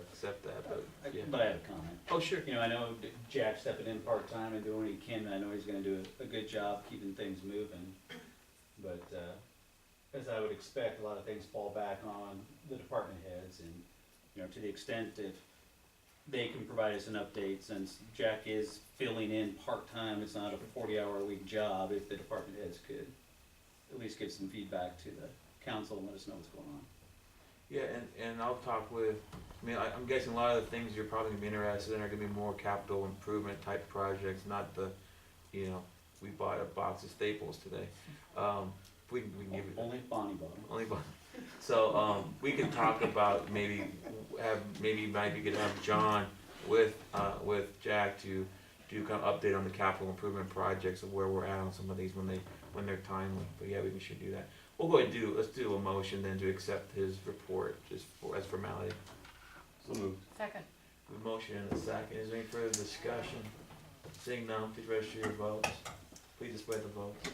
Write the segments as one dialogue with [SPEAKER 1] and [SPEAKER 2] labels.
[SPEAKER 1] accept that,
[SPEAKER 2] I-
[SPEAKER 1] but yeah.
[SPEAKER 2] But I have a comment.
[SPEAKER 1] Oh, sure.
[SPEAKER 2] You know, I know Jack's stepping in part-time and doing what he can, and I know he's gonna do a, a good job keeping things moving. But, uh, as I would expect, a lot of things fall back on the department heads and, you know, to the extent that they can provide us an update, since Jack is filling in part-time, it's not a forty-hour-a-week job, if the department heads could at least give some feedback to the council and let us know what's going on.
[SPEAKER 1] Yeah, and, and I'll talk with, I mean, I, I'm guessing a lot of the things you're probably gonna be interested in are gonna be more capital improvement type projects, not the, you know, we bought a box of staples today. Um, if we, can- we can give it,
[SPEAKER 2] Only if Bonnie bought 'em.
[SPEAKER 1] only one. So, um, we can talk about maybe, have, maybe might be good to have John with, uh, with Jack to do kind of update on the capital improvement projects of where we're at on some of these when they, when they're timely, but yeah, we should do that. We'll go ahead and do, let's do a motion then to accept his report, just for, as formality.
[SPEAKER 3] So moved.
[SPEAKER 4] Second.
[SPEAKER 1] We have a motion and a second, is there any further discussion? Seeing none, please register your votes, please display the votes.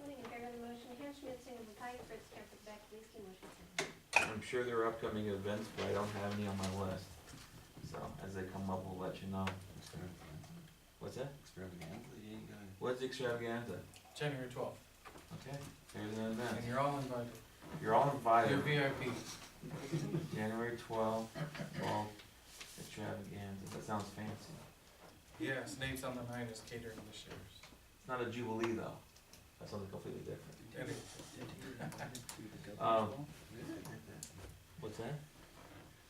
[SPEAKER 5] Voting in favor of the motion, Hans Schmidt, Singleton Pike, Fritz Camper, Beck, Leeske, motion carried.
[SPEAKER 1] I'm sure there are upcoming events, but I don't have any on my list, so as they come up, we'll let you know. What's that?
[SPEAKER 3] Extravaganza, you ain't got it.
[SPEAKER 1] What's extravaganza?
[SPEAKER 6] January twelfth,
[SPEAKER 1] Okay, there's an
[SPEAKER 6] and
[SPEAKER 1] event,
[SPEAKER 6] you're all invited.
[SPEAKER 1] you're all
[SPEAKER 6] You're
[SPEAKER 1] invited,
[SPEAKER 6] VIP.
[SPEAKER 1] January twelfth, twelve, extravaganza, that sounds fancy.
[SPEAKER 6] Yeah, Snape's on the nine is catering this year's.
[SPEAKER 1] It's not a jubilee though, that's something completely different.
[SPEAKER 6] And it-
[SPEAKER 1] Um, What's that?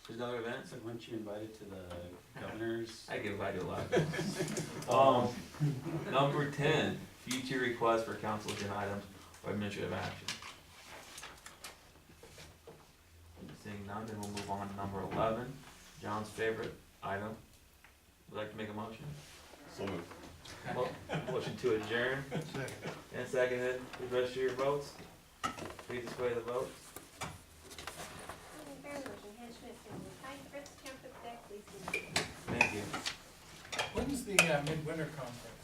[SPEAKER 1] There's another event?
[SPEAKER 2] So weren't you invited to the governor's?
[SPEAKER 1] I get invited a lot. Um, number ten, future requests for council agenda items or administrative action. Seeing none, then we'll move on to number eleven, John's favorite item. Would like to make a motion?
[SPEAKER 3] So moved.
[SPEAKER 1] Mo- Motion to adjourn. And seconded, please register your votes. Please display the votes.
[SPEAKER 5] Voting in favor of the motion, Hans Schmidt, Singleton Pike, Fritz Camper, Beck, Leeske, motion carried.
[SPEAKER 1] Thank you.
[SPEAKER 6] When's the uh, midwinter conference?